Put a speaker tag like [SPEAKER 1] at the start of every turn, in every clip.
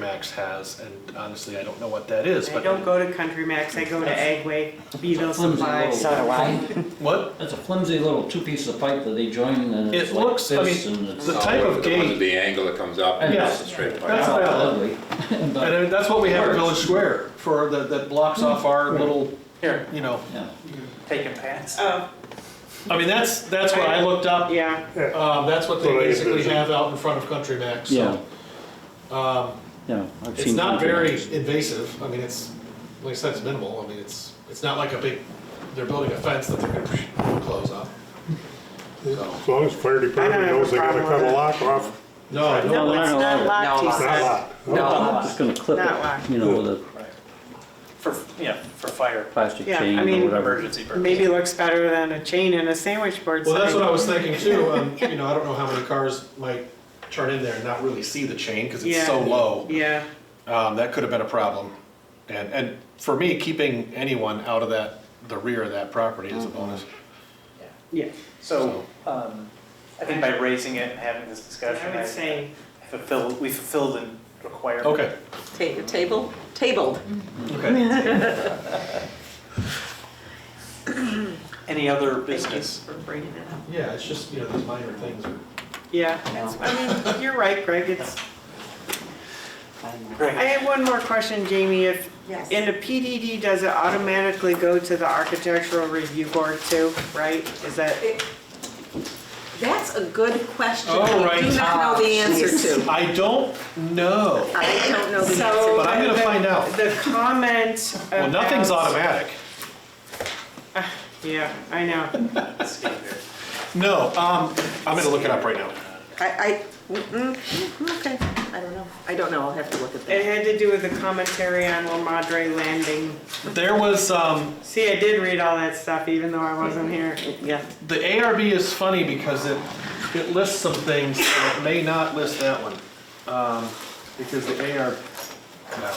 [SPEAKER 1] Max has, and honestly, I don't know what that is,
[SPEAKER 2] I
[SPEAKER 1] but.
[SPEAKER 2] don't go to Country Max, I go to Agway, Beville Supply.
[SPEAKER 3] Flimsy
[SPEAKER 4] So do I.
[SPEAKER 1] What?
[SPEAKER 3] That's a flimsy little two pieces of pipe that they join and it's
[SPEAKER 1] It
[SPEAKER 3] like
[SPEAKER 1] looks- I
[SPEAKER 3] this
[SPEAKER 1] mean,
[SPEAKER 3] and it's.
[SPEAKER 1] the
[SPEAKER 3] all-
[SPEAKER 1] type- of
[SPEAKER 5] Oh, The one
[SPEAKER 1] gate.
[SPEAKER 5] with the angle that comes up and
[SPEAKER 3] Yeah.
[SPEAKER 5] it's a straight pipe.
[SPEAKER 1] That's what I like.
[SPEAKER 3] ugly.
[SPEAKER 1] And
[SPEAKER 3] But,
[SPEAKER 1] I mean, that's what we have at
[SPEAKER 3] Works.
[SPEAKER 1] Village Square for, that, that blocks off our little,
[SPEAKER 6] Here,
[SPEAKER 1] you know.
[SPEAKER 3] yeah.
[SPEAKER 6] taking pants.
[SPEAKER 2] Oh,
[SPEAKER 1] I mean, that's, that's what I looked up.
[SPEAKER 2] yeah,
[SPEAKER 1] Um, that's what they
[SPEAKER 7] Well, I
[SPEAKER 1] basically
[SPEAKER 7] envision.
[SPEAKER 1] have out in front of Country Max,
[SPEAKER 3] Yeah,
[SPEAKER 1] so. Um,
[SPEAKER 3] yeah. I've
[SPEAKER 1] it's
[SPEAKER 3] seen
[SPEAKER 1] not
[SPEAKER 3] country
[SPEAKER 1] very
[SPEAKER 3] houses.
[SPEAKER 1] invasive. I mean, it's, like I said, it's minimal. I mean, it's, it's not like a big, they're building a fence that they're gonna close up. So.
[SPEAKER 7] As long as fire department
[SPEAKER 2] I don't have a
[SPEAKER 7] knows they gotta
[SPEAKER 2] problem
[SPEAKER 7] cut
[SPEAKER 2] with
[SPEAKER 7] a
[SPEAKER 2] it.
[SPEAKER 7] lock off,
[SPEAKER 1] No, no,
[SPEAKER 2] no, it's
[SPEAKER 3] no,
[SPEAKER 2] not
[SPEAKER 3] no.
[SPEAKER 2] locked, he
[SPEAKER 6] No,
[SPEAKER 7] not a
[SPEAKER 2] says.
[SPEAKER 7] lot.
[SPEAKER 3] I'm
[SPEAKER 6] No,
[SPEAKER 3] just gonna clip
[SPEAKER 2] Not locked.
[SPEAKER 3] it, you know, with a
[SPEAKER 6] for, yeah, for fire,
[SPEAKER 3] plastic
[SPEAKER 2] Yeah, I
[SPEAKER 3] chain
[SPEAKER 2] mean-
[SPEAKER 3] or whatever.
[SPEAKER 6] emergency
[SPEAKER 2] Maybe
[SPEAKER 6] purposes.
[SPEAKER 2] looks better than a chain and a sandwich board
[SPEAKER 1] Well, that's what
[SPEAKER 2] sign.
[SPEAKER 1] I was thinking too, um, you know, I don't know how many cars might turn in there and not really see the chain, cause it's so
[SPEAKER 2] Yeah.
[SPEAKER 1] low.
[SPEAKER 2] Yeah,
[SPEAKER 1] Um, that could have been a problem. And, and for me, keeping anyone out of that, the rear of that property is a bonus.
[SPEAKER 2] yeah.
[SPEAKER 6] So, um, I think by raising it and having this discussion,
[SPEAKER 2] I
[SPEAKER 6] I
[SPEAKER 2] would say,
[SPEAKER 6] I fulfill, we fulfilled the requirement.
[SPEAKER 1] Okay,
[SPEAKER 8] Ta- Table, tabled.
[SPEAKER 1] okay.
[SPEAKER 6] Any other
[SPEAKER 8] Thank you
[SPEAKER 6] business?
[SPEAKER 8] for bringing it up.
[SPEAKER 1] Yeah, it's just, you know, these minor things are.
[SPEAKER 2] yeah, it's- I mean, you're right, Greg, it's, I
[SPEAKER 6] Great.
[SPEAKER 2] have one more question, Jamie, if,
[SPEAKER 8] Yes.
[SPEAKER 2] in a PDD, does it automatically go to the architectural review board too, right? Is that,
[SPEAKER 8] That's a good question.
[SPEAKER 1] All
[SPEAKER 8] I
[SPEAKER 1] right. Ah,
[SPEAKER 8] do not know the answer to.
[SPEAKER 1] I don't know,
[SPEAKER 8] I don't know the answer.
[SPEAKER 2] so.
[SPEAKER 1] but I'm gonna find out.
[SPEAKER 2] The comment about.
[SPEAKER 1] Well, nothing's automatic.
[SPEAKER 2] Yeah, I know.
[SPEAKER 1] No, um, I'm gonna look it up right now.
[SPEAKER 8] I, I, mm, mm, okay, I don't know. I don't know, I'll have to look at
[SPEAKER 2] It
[SPEAKER 8] that.
[SPEAKER 2] had to do with the commentary on La Madre Landing.
[SPEAKER 1] There was, um,
[SPEAKER 2] See, I did read all that stuff even though I wasn't here.
[SPEAKER 8] Yeah.
[SPEAKER 1] the ARB is funny because it, it lists some things, and it may not list that one. Um, because the AR, no.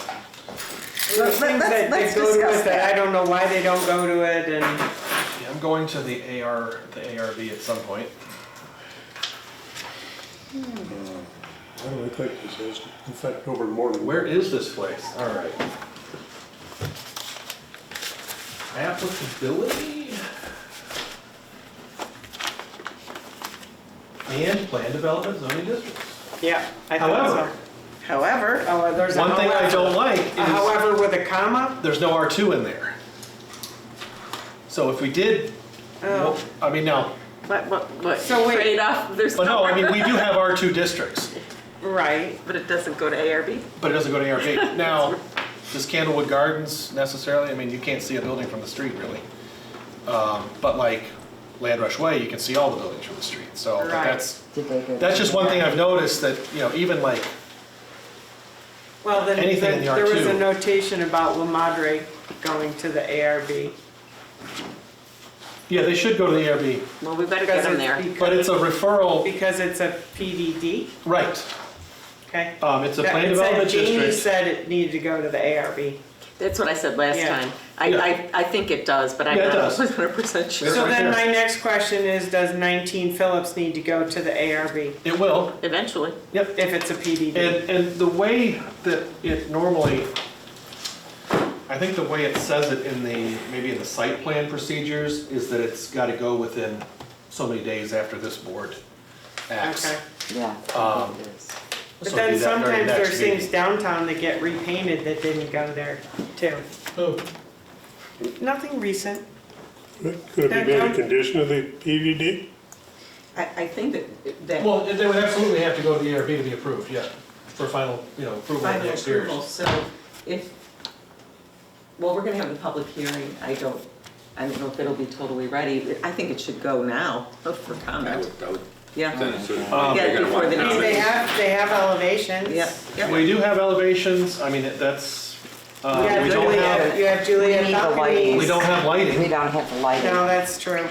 [SPEAKER 2] There are things that they
[SPEAKER 8] let's
[SPEAKER 2] go to
[SPEAKER 8] discuss
[SPEAKER 2] it that I
[SPEAKER 8] that.
[SPEAKER 2] don't know why they don't go to it and,
[SPEAKER 1] Yeah, I'm going to the AR, the ARB at some point.
[SPEAKER 7] I don't think this has affect over more than.
[SPEAKER 1] Where is this place? All right. Applicability? And plan development zoning districts.
[SPEAKER 2] yeah, I thought so.
[SPEAKER 1] However,
[SPEAKER 2] However, oh, there's a
[SPEAKER 1] one thing I
[SPEAKER 2] however.
[SPEAKER 1] don't like
[SPEAKER 2] A
[SPEAKER 1] is
[SPEAKER 2] However with a comma?
[SPEAKER 1] there's no R2 in there. So if we did,
[SPEAKER 2] Oh.
[SPEAKER 1] well, I mean, no,
[SPEAKER 8] What, what, what?
[SPEAKER 2] So wait.
[SPEAKER 8] Trade off, there's
[SPEAKER 1] but no,
[SPEAKER 8] no,
[SPEAKER 1] I mean, we do have R2 districts,
[SPEAKER 2] Right.
[SPEAKER 8] but it doesn't go to ARB?
[SPEAKER 1] but it doesn't go to ARB. Now, does Candlewood Gardens necessarily, I mean, you can't see a building from the street really. Um, But like Land Rush Way, you can see all the buildings from the street, so but
[SPEAKER 2] Right.
[SPEAKER 1] that's,
[SPEAKER 4] Did they go-
[SPEAKER 1] That's just one thing I've noticed that, you know, even like,
[SPEAKER 2] Well, then
[SPEAKER 1] Anything in the
[SPEAKER 2] there was a
[SPEAKER 1] R2.
[SPEAKER 2] notation about La Madre going to the ARB.
[SPEAKER 1] yeah, they should go to the ARB,
[SPEAKER 8] Well, we better get them there.
[SPEAKER 1] but it's a referral,
[SPEAKER 2] Because it's a PDD,
[SPEAKER 1] right.
[SPEAKER 2] okay?
[SPEAKER 1] Um, it's a
[SPEAKER 2] That-
[SPEAKER 1] plan
[SPEAKER 2] it said
[SPEAKER 1] development
[SPEAKER 2] Jamie
[SPEAKER 1] district.
[SPEAKER 2] said it needed to go to the ARB.
[SPEAKER 8] That's what I said last
[SPEAKER 2] Yeah.
[SPEAKER 8] time. I,
[SPEAKER 1] Yeah.
[SPEAKER 8] I, I think it does, but I'm
[SPEAKER 1] Yeah, it
[SPEAKER 8] not
[SPEAKER 1] does.
[SPEAKER 8] 100%
[SPEAKER 1] It's
[SPEAKER 2] So
[SPEAKER 8] sure.
[SPEAKER 1] right
[SPEAKER 2] then my
[SPEAKER 1] there.
[SPEAKER 2] next question is, does 19 Phillips need to go to the ARB
[SPEAKER 1] It will,
[SPEAKER 8] Eventually.
[SPEAKER 1] yep.
[SPEAKER 2] if it's a PDD?
[SPEAKER 1] And, and the way that it normally, I think the way it says it in the, maybe in the site plan procedures, is that it's gotta go within so many days after this board acts.
[SPEAKER 2] Okay.
[SPEAKER 4] Yeah.
[SPEAKER 1] Um,
[SPEAKER 4] it is.
[SPEAKER 1] So
[SPEAKER 2] But
[SPEAKER 1] it'll be that very
[SPEAKER 2] then sometimes
[SPEAKER 1] next
[SPEAKER 2] there's things
[SPEAKER 1] meeting.
[SPEAKER 2] downtown that get repainted that didn't go there too.
[SPEAKER 1] Oh,
[SPEAKER 2] Nothing recent.
[SPEAKER 7] Could it be made a condition of the PVD?
[SPEAKER 8] I, I think that, that
[SPEAKER 1] Well, they would absolutely have to go to the ARB to be approved, yeah, for final, you know, approval of
[SPEAKER 8] final
[SPEAKER 1] the exteriors.
[SPEAKER 8] approval, so if, well, we're gonna have the public hearing, I don't, I don't know if it'll be totally ready, I think it should go now for
[SPEAKER 5] I
[SPEAKER 8] comment,
[SPEAKER 5] would, I would
[SPEAKER 8] yeah.
[SPEAKER 5] send it to.
[SPEAKER 1] Um,
[SPEAKER 5] they're
[SPEAKER 8] Yeah,
[SPEAKER 5] gonna
[SPEAKER 8] before
[SPEAKER 5] want
[SPEAKER 8] the
[SPEAKER 5] comments.
[SPEAKER 8] next
[SPEAKER 2] They have, they have elevations.
[SPEAKER 8] Yeah, yeah.
[SPEAKER 1] We do have elevations, I mean, that's,
[SPEAKER 2] You
[SPEAKER 1] uh,
[SPEAKER 2] have
[SPEAKER 1] we don't
[SPEAKER 2] Juliet,
[SPEAKER 1] have,
[SPEAKER 2] you have
[SPEAKER 4] We
[SPEAKER 2] Juliet
[SPEAKER 4] need the lighting.
[SPEAKER 1] we
[SPEAKER 2] balconies.
[SPEAKER 1] don't have
[SPEAKER 4] We
[SPEAKER 1] lighting,
[SPEAKER 4] don't have the
[SPEAKER 2] No,
[SPEAKER 4] lighting.
[SPEAKER 2] that's true.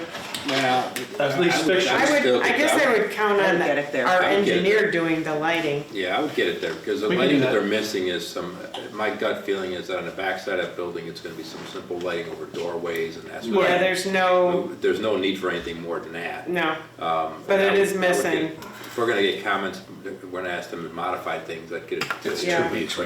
[SPEAKER 5] Well,
[SPEAKER 1] at least
[SPEAKER 2] I
[SPEAKER 1] pictures.
[SPEAKER 2] would,
[SPEAKER 5] still
[SPEAKER 2] I
[SPEAKER 5] get
[SPEAKER 2] guess
[SPEAKER 5] that
[SPEAKER 2] I
[SPEAKER 5] one.
[SPEAKER 2] would count
[SPEAKER 8] I
[SPEAKER 2] on
[SPEAKER 8] would get it there.
[SPEAKER 2] our
[SPEAKER 5] I would get it
[SPEAKER 2] engineer doing the lighting.
[SPEAKER 5] Yeah, I would get it there, because the
[SPEAKER 1] We can do
[SPEAKER 5] lighting that
[SPEAKER 1] that.
[SPEAKER 5] they're missing is some, my gut feeling is that on the backside of that building, it's gonna be some simple lighting over doorways and that's.
[SPEAKER 2] Yeah, there's no,
[SPEAKER 5] There's no need for anything more than that.
[SPEAKER 2] no.
[SPEAKER 5] Um,
[SPEAKER 2] But
[SPEAKER 5] and I
[SPEAKER 2] it
[SPEAKER 5] would-
[SPEAKER 2] is
[SPEAKER 5] I would
[SPEAKER 2] missing.
[SPEAKER 5] get- If we're gonna get comments, we're gonna ask them to modify things, I'd get it.
[SPEAKER 2] Yeah.
[SPEAKER 5] It's